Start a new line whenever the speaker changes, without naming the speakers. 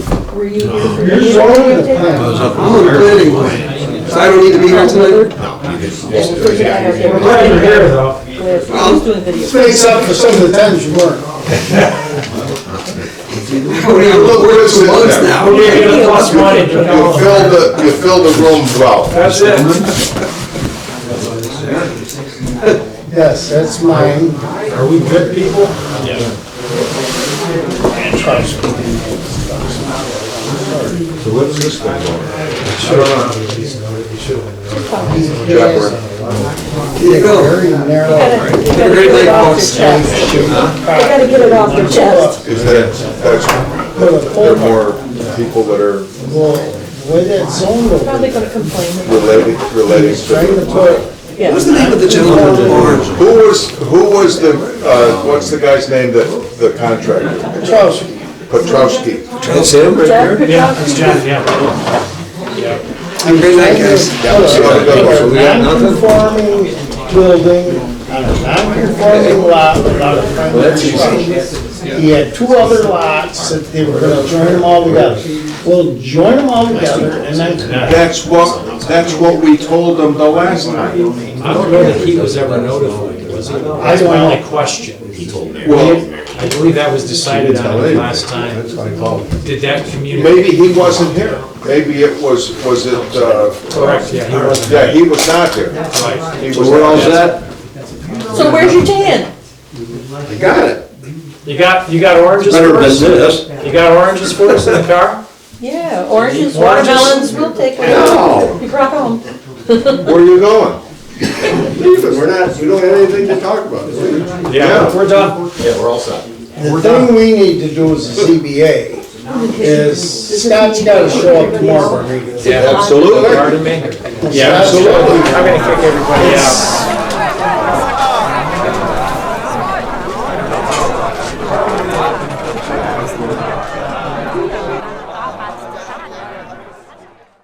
Were you here for?
You're showing the plan.
I'm on the planning board, so I don't need to be here tonight?
We're glad you're here though.
Who's doing video?
Face up for some of the times you weren't.
We're gonna look, we're two months now.
We're gonna get a plus
We're
money to
You
come.
fill the, you fill the room well.
That's it.
Yes, that's mine. Are we good people?
So what's this thing on?
Here you go.
Very narrow.
Gotta- you
Have a
gotta
great
get it
night,
off
folks.
your chest. You gotta get it off your chest.
Is that, that's, there are more people that are
Well, Way that zone
Probably
over,
gonna complain.
related, relating to
trying to
the
put,
Yeah.
What's the name of the gentleman with the barn?
Who was, who was the, uh, what's the guy's name, that the contractor?
Petrowski,
Petrowski.
That's him right
Jeff
there.
Yeah,
Petrowski?
it's John, yeah.
Have a great night, guys.
a
We got nothing?
non-conforming building on a non-conforming lot without a primary structure. He had two other lots that they were gonna join them all together. Well, join them all together and then,
That's what, that's what we told them the last time.
I don't know that he was ever notified, was he? That's my only question.
Well,
I believe that was decided on the last time.
That's what I call it.
Did that community,
maybe he wasn't here. Maybe it was, was it, uh,
correct, yeah, he wasn't
yeah, he was not there.
right.
He was
So we're all
not there.
set?
So where's your tan?
I got it.
You got, you got oranges
Better
for
than
us?
this.
You got oranges for us in the car?
Yeah, oranges,
Oranges.
watermelons, we'll take them.
No.
You brought home.
Where are you going?
Leave it. We're not, we don't have anything to talk about.
Yeah.
We're done.
the thing we need to do as a ZBA is Scott's gotta show up tomorrow.
Absolutely.
Pardon me?
Yeah, absolutely.
I'm gonna kick everybody out.